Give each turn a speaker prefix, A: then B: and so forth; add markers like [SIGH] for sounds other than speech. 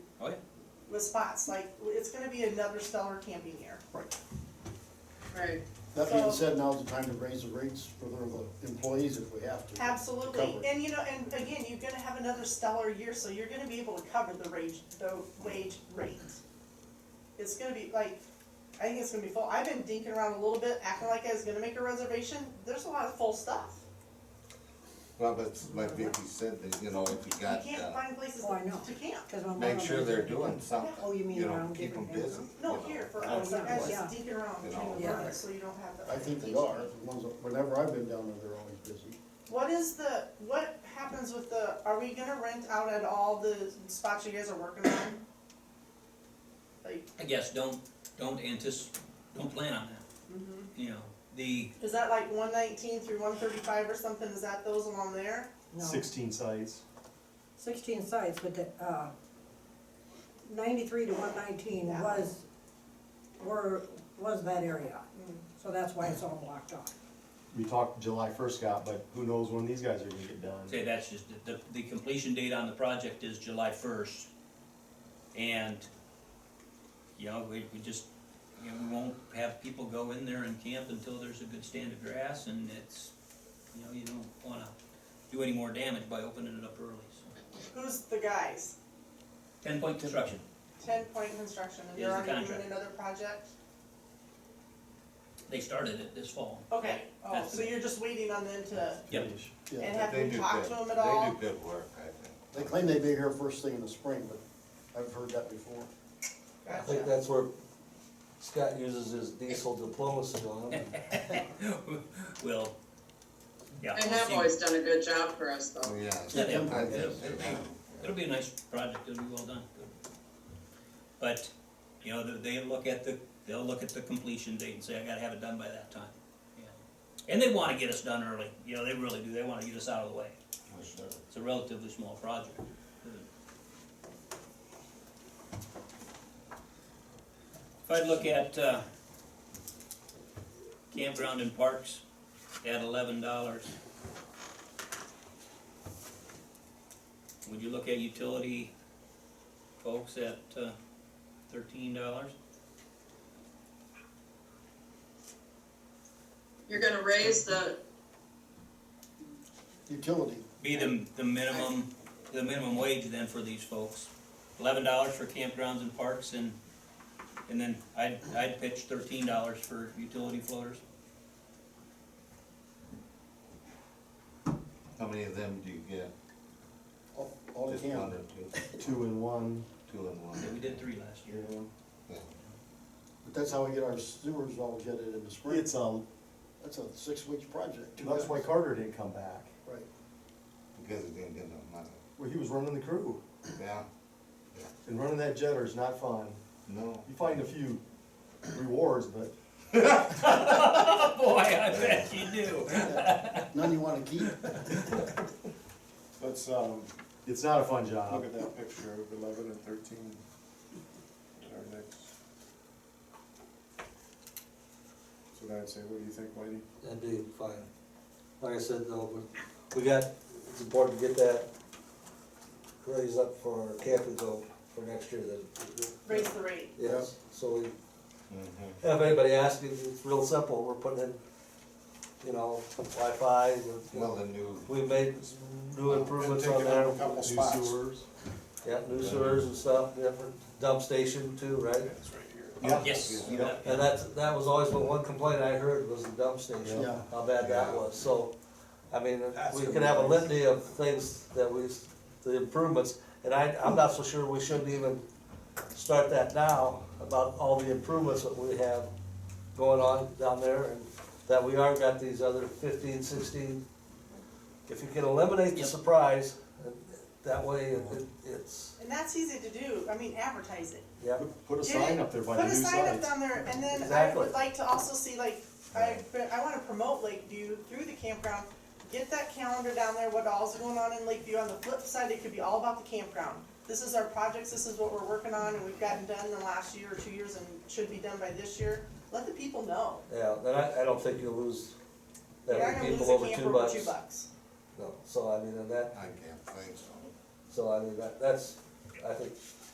A: spots, like, it's gonna be another stellar camping year.
B: Right.
C: Right,
B: That being
A: So-
B: said, now's the time to raise the rates for the employees if we have to.
A: Absolutely,
B: Covered.
A: and you know, and again, you're gonna have another stellar year, so you're gonna be able to cover the wage, the wage rate. It's gonna be like, I think it's gonna be full, I've been dinking around a little bit, acting like I was gonna make a reservation, there's a lot of full stuff.
D: Well, but like Vicky said, that, you know, if you
A: You
D: got,
A: can't
D: uh,
A: find places
E: Oh, I know.
A: to camp.
E: Cause my mom.
D: make sure they're doing something,
E: Oh, you mean
D: you know,
E: around
D: keep them
E: different
D: busy.
E: things,
D: you
A: No,
D: know.
A: here for
D: Oh,
A: us,
E: yeah.
A: I guys
E: Yeah.
A: just dinking around,
D: You
A: trying to
E: know,
A: work
E: yeah.
A: it, so you don't have the.
B: I think they are, the ones that- whenever I've been down there, they're always busy.
A: What is the, what happens with the, are we gonna rent out at all the spots you guys are working on? Like,
F: I guess don't, don't anticipate, don't plan on that,
C: Mm-hmm.
F: you know, the,
A: Is that like one nineteen through one thirty-five or something, is that those along there?
E: No.
G: sixteen sites.
E: Sixteen sites, but the, uh, ninety-three to one nineteen
A: Yeah.
E: was, were, was that area.
A: Mm.
E: So that's why it's all blocked off.
G: We talked July first, Scott, but who knows when these guys are gonna get done.
F: say that's just, the, the completion date on the project is July first. And, you know, we, we just, you know, we won't have people go in there and camp until there's a good stand of grass and it's, you know, you don't wanna do any more damage by opening it up early, so.
A: Who's the guys?
F: Ten point construction,
A: Ten Point Construction, and they're
F: Here's the
A: already doing
F: contract.
A: another project?
F: they started it this fall.
A: Okay, oh,
F: That's
A: so
F: it.
A: you're just waiting on them to,
F: Yep.
G: Finish.
A: and
B: Yeah,
A: have
D: They
A: you
D: do
A: talked to
D: good-
A: them at all?
D: They do good work, I think.
B: they claim they'd be here first thing in the spring, but I've heard that before.
H: I
A: Gotcha.
H: think that's where Scott uses his diesel diplomacy on him.
F: Well, yeah.
C: they
F: we'll
C: have
F: see.
C: always done a good job for us
D: Oh,
C: though.
D: yeah.
F: Yeah, they-
D: I think
F: they-
D: they do.
F: It'll be a nice project, it'll be well done. But, you know, they they look at the, they'll look at the completion date and say, I gotta have it done by that time. you know. And they wanna get us done early, you know, they really do, they wanna get us out of the way.
D: For sure.
F: It's a relatively small project. If I look at, uh, campground and parks, at eleven dollars. Would you look at utility folks at, uh, thirteen dollars?
C: You're gonna raise the,
B: Utility,
F: Be the, the minimum, the minimum wage then for these folks. Eleven dollars for campgrounds and parks and, and then I'd, I'd pitch thirteen dollars for utility floaters.
D: How many of them do you get?
B: all, all they
D: Just one
B: can.
D: or two,
G: Two and one,
D: two and one?
F: Yeah, we did three last
G: you
F: year. [LAUGHS]
G: know.
D: Yeah.
B: But that's how we get our sewers all jetted in the spring.
G: It's, um,
B: That's a six-week project.
G: that's why Carter didn't come back.
B: Right.
D: Because it didn't get enough money,
G: Well, he was running the crew,
D: yeah,
G: and running that jetter is not fun.
D: no.
G: You find a few rewards, but
F: Boy, I bet you do.
B: None you wanna keep?
I: Let's, um,
G: it's not a fun
I: look
G: job.
I: at that picture of eleven and thirteen in our next. So then I'd say, what do you think, Whitey?
H: That'd be fine. Like I said, though, we- we got, it's important to get that raised up for our camping though for next year that.
A: Raise the rate.
H: Yes, so we,
D: Mhm.
H: if anybody asks me, it's real simple, we're putting in, you know, Wi-Fi. we-
D: Well, the new,
H: We made s- new improvements on
I: And taking out a
H: there,
I: couple
G: New
I: spots.
G: sewers.
H: yeah, new sewers and stuff, different dump station too, right?
I: It's right here.
G: Yeah.
F: Yes.
D: Yeah.
F: that-
H: And that's, that was always what one complaint I heard was the dump station,
B: Yeah.
H: how bad that
D: Yeah.
H: was, so, I mean,
I: That's
H: we
I: gonna
H: can
I: be
H: have a
I: nice.
H: litany of things that we, s- the improvements, and I, I'm not so sure we shouldn't even start that now, about all the improvements that we have going on down there, and that we are got these other fifteen, sixteen. If you can eliminate the
F: Yep.
H: surprise, uh, that way it, it- it's,
A: And that's easy to do, I mean, advertise it.
H: yeah,
G: Put- Put a
A: Did
G: sign
A: it-
G: up there by the new
A: Put a sign up
G: sites.
A: down there, and then I
H: Exactly.
A: would like to also see, like, I, I wanna promote Lakeview through the campground. Get that calendar down there, what all's going on in Lakeview, on the flip side, it could be all about the campground. This is our projects, this is what we're working on, and we've gotten done in the last year or two years, and should be done by this year, let the people know.
H: yeah, then I, I don't think you'll lose
A: We
H: that
A: are
H: many
A: gonna lose
H: people over
A: a
H: two
A: camper for
H: bucks.
A: two bucks.
H: No, so I mean, and that,
D: I can't think so.
H: so I mean, that, that's, I think,